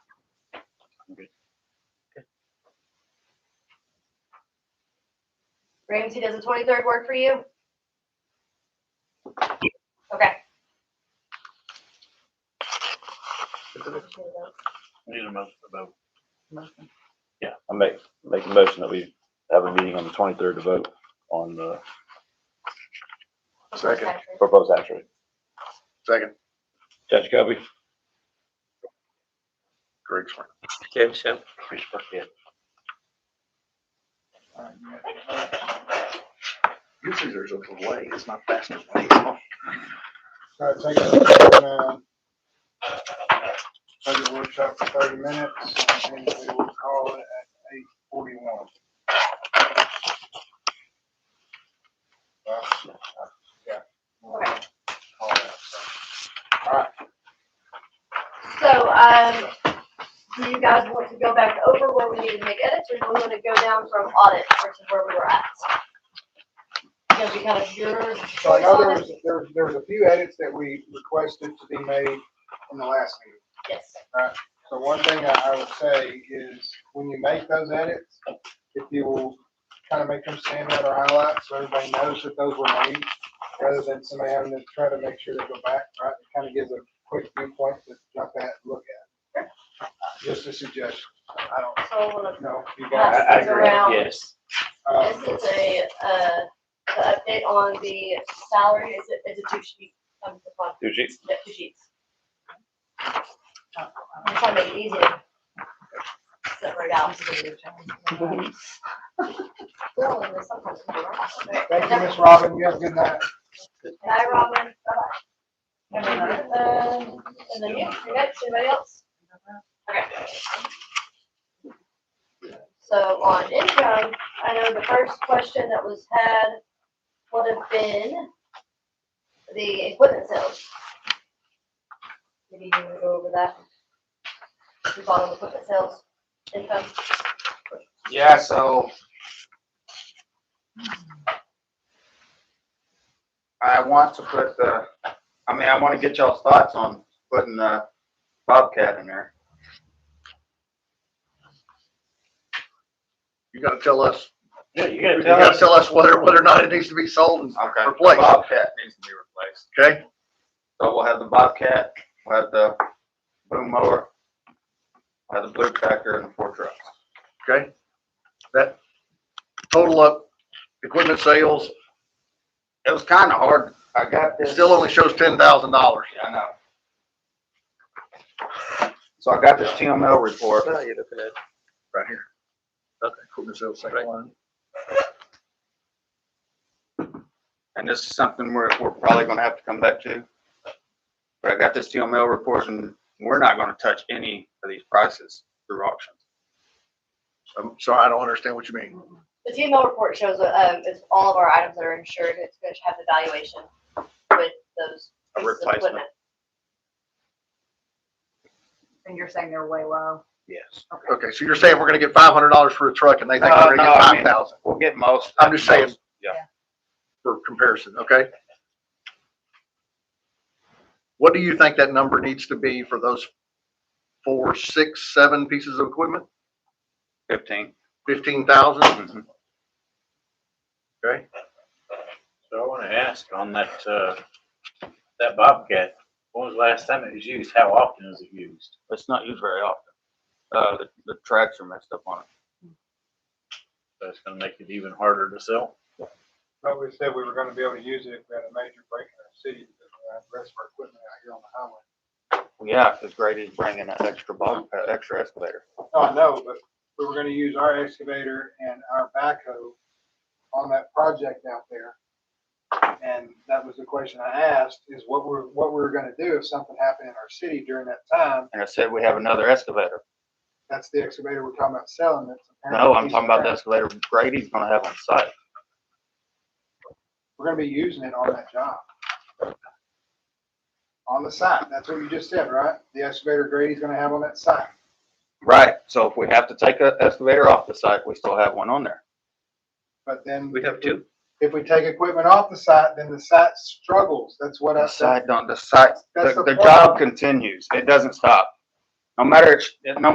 Ramsey, does the twenty-third work for you? Okay. Need a motion about. Yeah, I make, make a motion that we have a meeting on the twenty-third to vote on the Second. proposed action. rate. Second, Judge Kobe? Greg Swain. Kevin Shem. You see there's a delay, it's not faster. All right, take a, budget workshop for thirty minutes, and we will call it at eight forty-one. Yeah. All Okay. right, So, um, do you guys want to go back over where we need to make edits, or do we want to go down from audit, which is where we were at? Because we kind of your So I choice know there on it? was, there, was- there was a few edits that we requested to be made in the last meeting. Yes. So one thing I, I would say is, when you make those edits, if you will kind of make them stand out or highlight, so everybody knows that those were made, rather than somebody having to try to make sure they go back, right? It kind of gives a quick viewpoint to jump at, and look at. Just a suggestion, I don't So we'll know, if you pass guys. these around. Yes. Uh, This is a, uh, the update on the salary, is it, is it two sheets? Um, the bottom, Two sheets. yeah, two sheets. I'm trying to make it easy to separate out. Well, and there's sometimes some wrong. Okay. Thank you, Ms. Robin, you have a good night. Bye, Robin. Bye-bye. Um, And then, yeah, you next, anybody else? Okay. So on income, I know the first question that was had would have been the equipment sales. Maybe you want to go over that? The bottom equipment sales income. Yeah, so. I want to put the, I mean, I wanna get y'all's thoughts on putting the Bobcat in there. You gotta tell us, Yeah, you you gotta tell us whether, whether or not it needs to be sold, and- Okay. the Replace. Bobcat needs to be replaced. okay? So we'll have the Bobcat, we'll have the boom mower, we'll have the blue tractor and the four trucks. Okay? That, total up, equipment sales, It was kinda hard, I got it this. still only shows ten thousand dollars. Yeah, I know. So I got this TML report. Well, you're looking at Right here. Okay. Equipment sales, second Right. line. And this is something we're, we're probably gonna have to come back to. But I got this steel mill report and we're not gonna touch any of these prices through auction. I'm sorry, I don't understand what you mean. The TML report shows, uh, um, it's all of our items that are insured, it's gonna have the valuation with those pieces A of replacement. equipment. And you're saying they're way low? Yes. Okay, so you're saying we're gonna get five hundred dollars for a truck and they think No, we're gonna no, get I five mean- thousand We'll get most. uh, I'm just saying. most. for comparison, okay? What do you think that number needs to be for those four, six, seven pieces of equipment? Fifteen. Fifteen thousand? Mhm. Okay, So I want to ask on that, uh, that Bobcat, when was the last time it was used? How often is it used? It's not used very often. Uh, the, the tracks are messed up on it. So it's gonna make it even harder to sell. But we said we were gonna be able to use it if we had a major break in our city, because we have the rest of our equipment out here on the highway. Yeah, because Grady's bringing that extra box, that extra escalator. No, I know, but we were gonna use our excavator and our backhoe on that project out there. And that was the question I asked, is what we're, what we're gonna do if something happened in our city during that time. And I said we have another excavator. That's the excavator we're talking about selling. That's apparently No, I'm talking about the excavator Grady's gonna have on site. We're gonna be using it on that job. On the site, that's what you just said, right? The excavator Grady's gonna have on that site. Right, so if we have to take an excavator off the site, we still have one on there. But then. We have if we- two. If we take equipment off the site, then the site struggles. That's what I The said. side don't, the side, That's the, the the job continues. It doesn't stop. No matter, it's- no